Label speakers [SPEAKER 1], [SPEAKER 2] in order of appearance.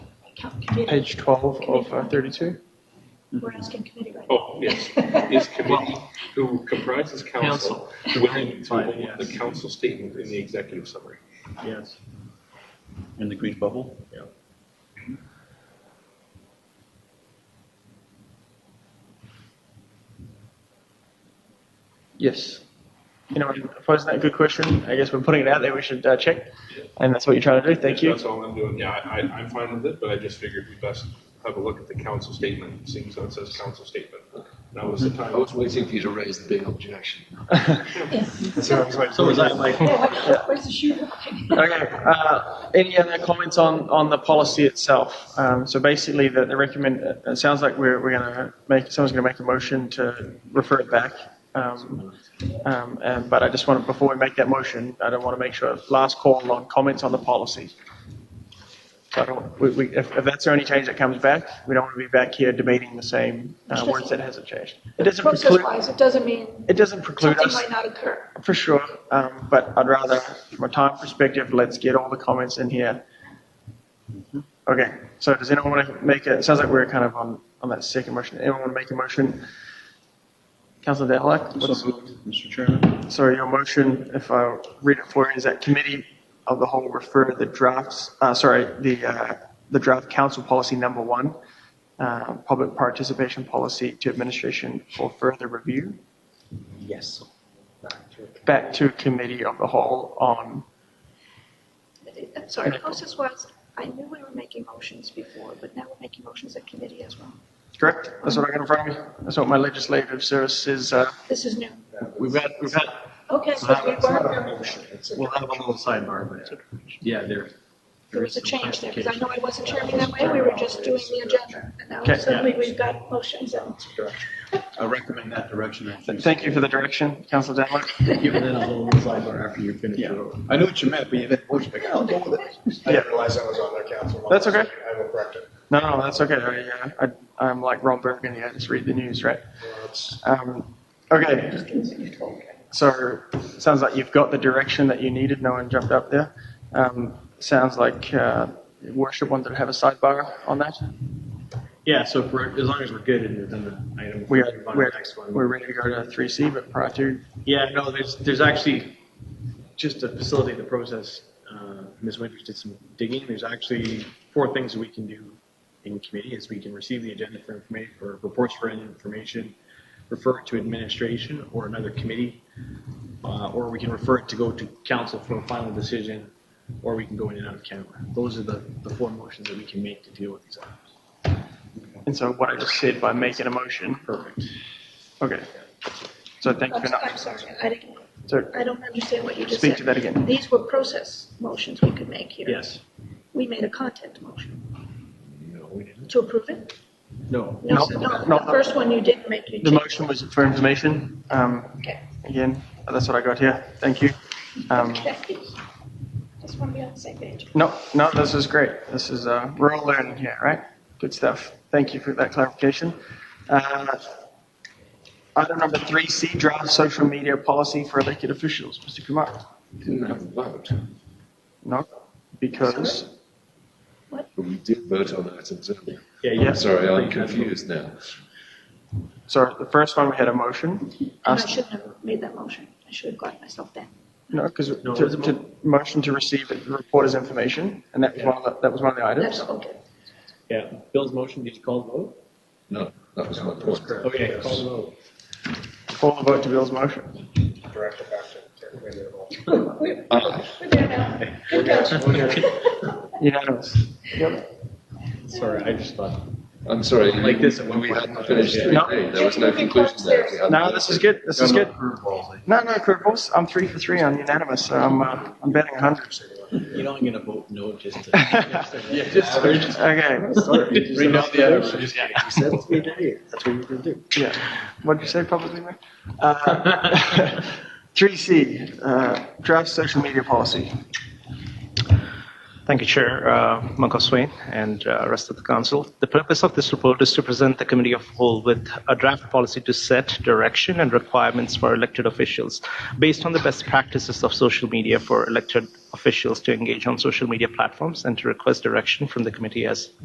[SPEAKER 1] Committee,
[SPEAKER 2] Page 12 of uh, 32.
[SPEAKER 1] we're asking committee right now.
[SPEAKER 3] Oh, yes, is committee who comprises council willing to
[SPEAKER 4] Fine,
[SPEAKER 3] hold the
[SPEAKER 4] yes.
[SPEAKER 3] council statement in the executive summary?
[SPEAKER 4] Yes. In the green bubble? Yeah.
[SPEAKER 2] Yes. Anyone opposed to that? Good question. I guess we're putting it out there. We should uh, check. And that's what you're trying to do. Thank you.
[SPEAKER 3] That's all I'm doing, yeah, I, I- I'm fine with it, but I just figured we best have a look at the council statement, seeing as though it says council statement. That was the
[SPEAKER 5] I
[SPEAKER 3] time.
[SPEAKER 5] was waiting for you to raise the big objection.
[SPEAKER 4] So was I, like,
[SPEAKER 1] Yeah, Where's the shoe?
[SPEAKER 2] Okay. Uh, any other comments on, on the policy itself? Um, so basically, the, the recommend. It sounds like we're, we're going to make someone's going to make a motion to refer it back. Um, um, and, but I just want to, before we make that motion, I don't want to make sure last call on comments on the policy. So I don't, we, we, if, if that's the only change that comes back, we don't want to be back here debating the same uh, words that hasn't changed. It doesn't preclude.
[SPEAKER 1] Process-wise, it doesn't mean
[SPEAKER 2] It doesn't preclude
[SPEAKER 1] something
[SPEAKER 2] us
[SPEAKER 1] might not occur.
[SPEAKER 2] for sure, um, but I'd rather, from a time perspective, let's get all the comments in here. Okay, so does anyone want to make a, it sounds like we're kind of on, on that second motion. Anyone want to make a motion? Councillor Dalek, what's,
[SPEAKER 4] so moved, Mr. Chairman?
[SPEAKER 2] sorry, your motion, if I read it for you, is that committee of the whole refer the drafts, uh, sorry, the, uh, the draft council policy number one, uh, public participation policy to administration for further review
[SPEAKER 4] Yes.
[SPEAKER 2] back to committee of the whole on
[SPEAKER 1] I'm sorry, process-wise, I knew we were making motions before, but now we're making motions at committee as well.
[SPEAKER 2] Correct. That's what I got in front of me. That's what my legislative service says. Uh,
[SPEAKER 1] This is new.
[SPEAKER 4] We've had, we've had,
[SPEAKER 1] Okay, so we were,
[SPEAKER 4] we'll have a little sidebar, but yeah, there.
[SPEAKER 1] there was a change there, because I know I wasn't chairman that way, we were just doing the agenda. And now
[SPEAKER 2] Okay.
[SPEAKER 1] suddenly we've got motions out.
[SPEAKER 4] I recommend that direction, I think.
[SPEAKER 2] thank you for the direction, Councillor Denlock.
[SPEAKER 4] Give it a little sidebar after you finish
[SPEAKER 6] Yeah.
[SPEAKER 4] it. I know what you meant, but you had, like, I'll go with it.
[SPEAKER 6] I
[SPEAKER 2] Yeah.
[SPEAKER 6] didn't realize I was on their council.
[SPEAKER 2] That's okay.
[SPEAKER 6] I will correct it.
[SPEAKER 2] No, no, that's okay. I, uh, I, I'm like Ron Burgundy. I just read the news, right? Um, okay. So sounds like you've got the direction that you needed. No one jumped up there. Um, sounds like uh, worship wanted to have a sidebar on that.
[SPEAKER 4] Yeah, so if we're, as long as we're good and within the item.
[SPEAKER 2] We
[SPEAKER 4] move
[SPEAKER 2] are,
[SPEAKER 4] on to
[SPEAKER 2] we're,
[SPEAKER 4] the next one.
[SPEAKER 2] we're ready to go to 3C, but prior to
[SPEAKER 4] Yeah, no, there's, there's actually, just to facilitate the process, uh, Ms. Winters did some digging. There's actually four things that we can do in committee is we can receive the agenda for information, or reports for information, refer it to administration or another committee, uh, or we can refer it to go to council for a final decision, or we can go in and out of camera. Those are the, the four motions that we can make to deal with these items.
[SPEAKER 2] and so what I just said by making a motion.
[SPEAKER 4] Perfect.
[SPEAKER 2] Okay. So thank you
[SPEAKER 1] I'm
[SPEAKER 2] for
[SPEAKER 1] I'm
[SPEAKER 2] not.
[SPEAKER 1] sorry, I didn't,
[SPEAKER 2] So
[SPEAKER 1] I don't understand what you just said.
[SPEAKER 2] Speak to that again.
[SPEAKER 1] These were process motions we could make here.
[SPEAKER 4] Yes.
[SPEAKER 1] We made a content motion
[SPEAKER 5] No, we didn't.
[SPEAKER 1] to approve it?
[SPEAKER 4] No.
[SPEAKER 1] No,
[SPEAKER 2] No,
[SPEAKER 1] so-
[SPEAKER 2] no.
[SPEAKER 1] no, the first one you didn't make. you
[SPEAKER 2] The
[SPEAKER 1] did.
[SPEAKER 2] motion was for information. Um,
[SPEAKER 1] Okay.
[SPEAKER 2] again, Oh, that's what I got here. Thank you. Um,
[SPEAKER 1] Okay. Just want to be on the same page.
[SPEAKER 2] no, no, this is great. This is, uh, we're all learning here, right? Good stuff. Thank you for that clarification. Uh, item number three, C draft social media policy for elected officials. Mr. Kumar?
[SPEAKER 5] Didn't have a vote,
[SPEAKER 2] No, because,
[SPEAKER 5] but we did vote on items earlier.
[SPEAKER 4] Yeah,
[SPEAKER 2] Yeah.
[SPEAKER 4] yes.
[SPEAKER 5] Sorry, I'm confused now.
[SPEAKER 2] sorry, the first one we had a motion. Uh,
[SPEAKER 1] And I
[SPEAKER 2] Us-
[SPEAKER 1] shouldn't have made that motion. I should have gotten myself down.
[SPEAKER 2] No, because to,
[SPEAKER 4] No, it was a mo-
[SPEAKER 2] to motion to receive the reporter's information, and that was one of the, that was one of the
[SPEAKER 1] That's
[SPEAKER 2] items.
[SPEAKER 1] okay.
[SPEAKER 4] Yeah. Bill's motion, did you call the vote?
[SPEAKER 5] No, that was my point.
[SPEAKER 4] Okay, call the vote.
[SPEAKER 2] Call the vote to Bill's motion.
[SPEAKER 6] Direct it back to everybody involved.
[SPEAKER 1] We're
[SPEAKER 5] Aye.
[SPEAKER 1] we're there now. We're good.
[SPEAKER 2] Unanimous.
[SPEAKER 4] Sorry, I just thought.
[SPEAKER 5] I'm sorry.
[SPEAKER 4] Like this at one
[SPEAKER 5] We
[SPEAKER 4] point.
[SPEAKER 5] hadn't finished
[SPEAKER 4] Yeah.
[SPEAKER 5] three
[SPEAKER 2] No.
[SPEAKER 5] A. There was no conclusion there. We hadn't-
[SPEAKER 2] No, this is good. This is good.
[SPEAKER 4] You
[SPEAKER 2] No, no, curveballs. I'm three for three on unanimous. So I'm, uh, I'm betting 100.
[SPEAKER 4] know, I'm gonna vote no just to. Yeah, just.
[SPEAKER 2] Okay.
[SPEAKER 4] Bring down the average.
[SPEAKER 2] Yeah. What did you say publicly, Mayor? Uh, 3C, uh, draft social media policy.
[SPEAKER 7] Thank you, Chair. Uh, Michael Swain and uh, rest of the council. The purpose of this report is to present the Committee of Whole with a draft policy to set direction and requirements for elected officials based on the best practices of social media for elected officials to engage on social media platforms and to request direction from the committee as